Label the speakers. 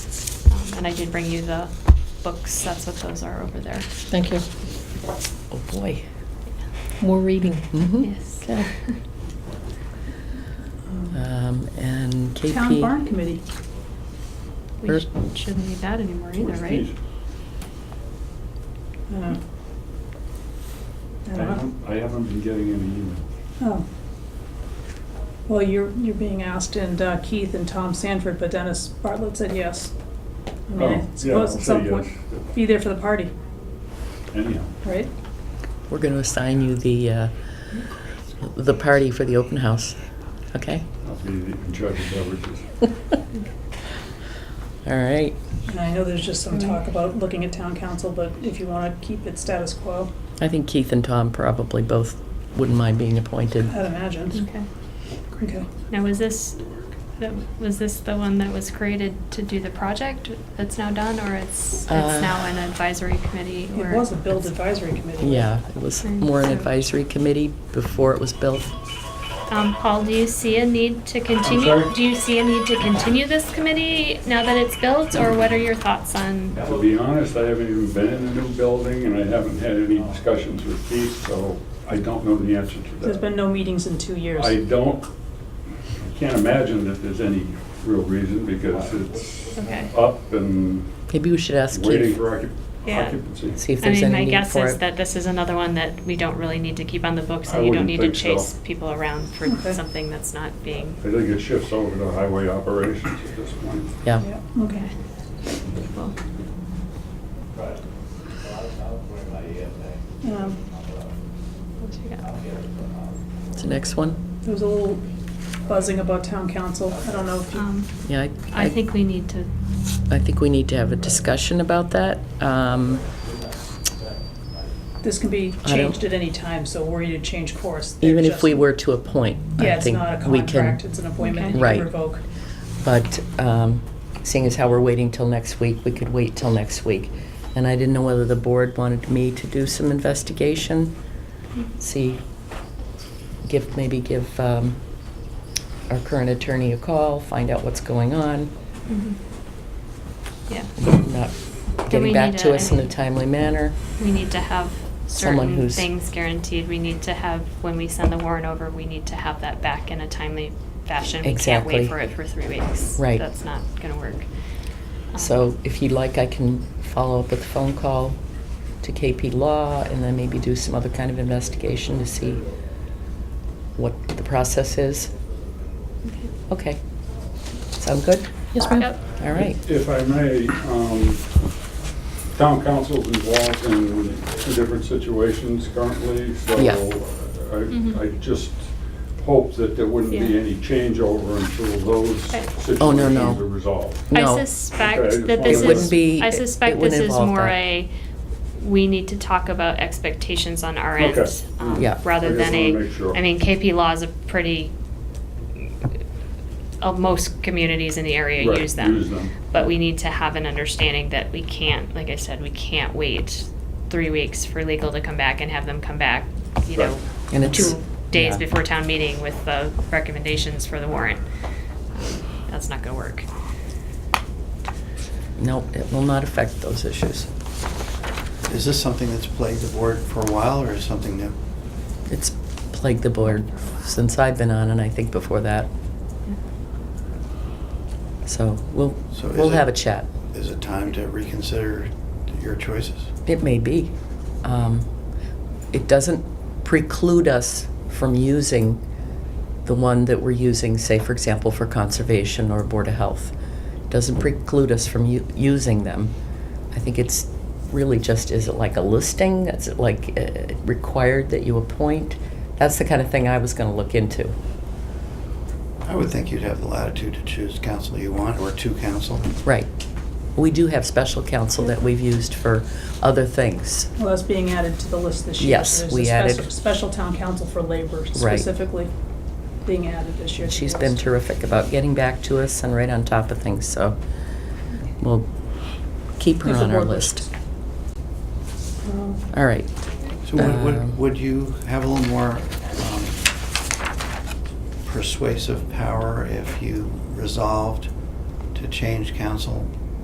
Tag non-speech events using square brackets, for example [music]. Speaker 1: and I did bring you the books, that's what those are over there.
Speaker 2: Thank you.
Speaker 3: Oh, boy.
Speaker 2: More reading.
Speaker 3: Mhm.
Speaker 1: Yes.
Speaker 2: Okay.
Speaker 3: Um, And KP.
Speaker 4: Town Barn Committee.
Speaker 1: We
Speaker 3: Er-
Speaker 1: sh- shouldn't need that anymore either,
Speaker 5: Where's
Speaker 1: right?
Speaker 5: these?
Speaker 4: Uh, I don't
Speaker 5: I
Speaker 4: know.
Speaker 5: haven't, I haven't been getting any emails.
Speaker 4: Oh. Well, you're, you're being asked, and uh, Keith and Tom Sanford, but Dennis Bartlett said yes. I mean,
Speaker 5: Oh, yeah,
Speaker 4: I suppose
Speaker 5: I'll
Speaker 4: at
Speaker 5: say
Speaker 4: some point,
Speaker 5: yes.
Speaker 4: be there for the party,
Speaker 5: Anyhow,
Speaker 4: right?
Speaker 3: We're going to assign you the, uh, the party for the open house,
Speaker 2: [laughs]
Speaker 3: okay?
Speaker 5: I'll be in charge of beverages.
Speaker 3: All right.
Speaker 4: And I know there's just some talk
Speaker 1: Mm.
Speaker 4: about looking at town council, but if you want to keep it status quo,
Speaker 3: I think Keith and Tom probably both wouldn't mind being appointed.
Speaker 4: I'd imagine.
Speaker 1: Okay.
Speaker 4: Okay.
Speaker 1: Now, was this, that- was this the one that was created to do the project that's now done, or it's, it's
Speaker 3: Uh,
Speaker 1: now an advisory committee?
Speaker 4: It
Speaker 1: or-
Speaker 4: was a build advisory committee.
Speaker 3: Yeah, it was more an advisory committee before it was built.
Speaker 1: Um, Paul, do you see a need to continue,
Speaker 5: sorry?
Speaker 1: do you see a need to [laughs] continue this committee now that it's built, or what are your thoughts on?
Speaker 5: To be honest, I haven't even been in the new building and I haven't had any discussions with Keith, so I don't know the answer to that.
Speaker 4: There's been no meetings in two years.
Speaker 5: I don't, I can't imagine that there's any real reason because it's
Speaker 1: Okay.
Speaker 5: up and
Speaker 3: Maybe we should ask
Speaker 5: waiting
Speaker 3: Keith,
Speaker 5: for occup-
Speaker 1: Yeah.
Speaker 5: occupancy.
Speaker 3: see if
Speaker 1: I
Speaker 3: there's
Speaker 1: mean, my
Speaker 3: any need
Speaker 1: guess
Speaker 3: for
Speaker 1: is
Speaker 3: it.
Speaker 1: that this is another one that we don't really need to keep on the books,
Speaker 5: I
Speaker 1: and you don't
Speaker 5: wouldn't
Speaker 1: need to
Speaker 5: think so.
Speaker 1: chase people around for
Speaker 4: Okay.
Speaker 1: something that's not being.
Speaker 5: I think it shifts over to highway operations at this point.
Speaker 3: Yeah.
Speaker 4: Yeah, okay.
Speaker 1: Well,
Speaker 4: Um,
Speaker 1: what you got?
Speaker 3: What's the next one?
Speaker 4: There was a little buzzing about town council. I don't know if you
Speaker 1: Um,
Speaker 3: Yeah,
Speaker 1: I think we need to,
Speaker 3: I think we need to have a discussion about that. Um,
Speaker 4: This can be
Speaker 3: I don't-
Speaker 4: changed at any time, so were you to change course? they're
Speaker 3: Even if
Speaker 4: just-
Speaker 3: we were to appoint,
Speaker 4: Yeah,
Speaker 3: I
Speaker 4: it's
Speaker 3: think
Speaker 4: not a
Speaker 3: we can.
Speaker 4: contract, it's an appointment
Speaker 1: Okay.
Speaker 4: that you
Speaker 3: Right.
Speaker 4: can revoke.
Speaker 3: But um, seeing as how we're waiting till next week, we could wait till next week. And I didn't know whether the board wanted me to do some investigation, see, give, maybe give um, our current attorney a call, find out what's going on,
Speaker 1: mhm. yeah,
Speaker 3: not
Speaker 1: we
Speaker 3: getting back
Speaker 1: need
Speaker 3: to
Speaker 1: a-
Speaker 3: us in a timely manner.
Speaker 1: we need to have
Speaker 3: Someone
Speaker 1: certain
Speaker 3: who's-
Speaker 1: things guaranteed. We need to have, when we send the warrant over, we need to have that back in a timely fashion. We can't
Speaker 3: Exactly.
Speaker 1: wait for it for three weeks.
Speaker 3: Right.
Speaker 1: That's not gonna work. Um,
Speaker 3: So if you'd like, I can follow up with a phone call to KP Law and then maybe do some other kind of investigation to see what the process is.
Speaker 1: okay.
Speaker 3: Okay. Sound good?
Speaker 2: Yes, ma'am.
Speaker 1: Um, Yep.
Speaker 3: All right.
Speaker 5: If I may, um, town council's involved in two different situations currently, so
Speaker 3: Yeah.
Speaker 1: Mhm.
Speaker 5: I, I just hope that there wouldn't be
Speaker 1: Yeah.
Speaker 5: any changeover until those
Speaker 1: Right.
Speaker 5: situations
Speaker 3: Oh, no, no.
Speaker 5: are resolved.
Speaker 3: No.
Speaker 1: I
Speaker 5: Okay,
Speaker 1: suspect
Speaker 5: I
Speaker 1: that this
Speaker 5: just wondered. It
Speaker 1: is,
Speaker 5: wouldn't
Speaker 3: be-
Speaker 1: I
Speaker 3: it- it
Speaker 1: suspect this
Speaker 3: wouldn't
Speaker 1: is
Speaker 3: involve
Speaker 1: more
Speaker 3: that.
Speaker 1: a, we need to talk about expectations on our
Speaker 5: Okay.
Speaker 1: end. um,
Speaker 3: Yeah.
Speaker 5: I
Speaker 1: Rather
Speaker 5: just
Speaker 1: than
Speaker 5: wanna make
Speaker 1: a,
Speaker 5: sure.
Speaker 1: I mean, KP law is a pretty, uh, most communities in the area
Speaker 5: Right,
Speaker 1: use them.
Speaker 5: use them.
Speaker 1: But we need to have an understanding that we can't, like I said, we can't wait three weeks for legal to come back and have them come back, you
Speaker 5: Right.
Speaker 1: know,
Speaker 3: And it's-
Speaker 1: two days
Speaker 3: yeah.
Speaker 1: before town meeting with the recommendations for the warrant. Um, That's not gonna work.
Speaker 3: No, it will not affect those issues.
Speaker 6: Is this something that's plagued the board for a while, or is something new?
Speaker 3: It's plagued the board since I've been on and I think before that. So we'll,
Speaker 6: So is
Speaker 3: we'll
Speaker 6: it-
Speaker 3: have a chat.
Speaker 6: Is it time to reconsider your choices?
Speaker 3: It may be. Um, It doesn't preclude us from using the one that we're using, say, for example, for conservation or Board of Health. Doesn't preclude us from u- using them. I think it's really just, is it like a listing? Is it like uh, required that you appoint? That's the kind of thing I was going to look into.
Speaker 6: I would think you'd have the latitude to choose counsel you want, or two counsel.
Speaker 3: Right. We do have special counsel that we've used for other things.
Speaker 4: Well, that's being added to the list this year.
Speaker 3: Yes,
Speaker 4: So there's a
Speaker 3: we
Speaker 4: spec-
Speaker 3: added-
Speaker 4: Special town council for labor specifically being added this year. to the
Speaker 3: She's been
Speaker 4: list.
Speaker 3: terrific about getting back to us and right on top of things, so we'll keep her
Speaker 4: There's a
Speaker 3: on our
Speaker 4: board
Speaker 3: list.
Speaker 4: Um,
Speaker 3: All right.
Speaker 6: So would,
Speaker 3: Um,
Speaker 6: would, would you have a little more um, persuasive power if you resolved to change counsel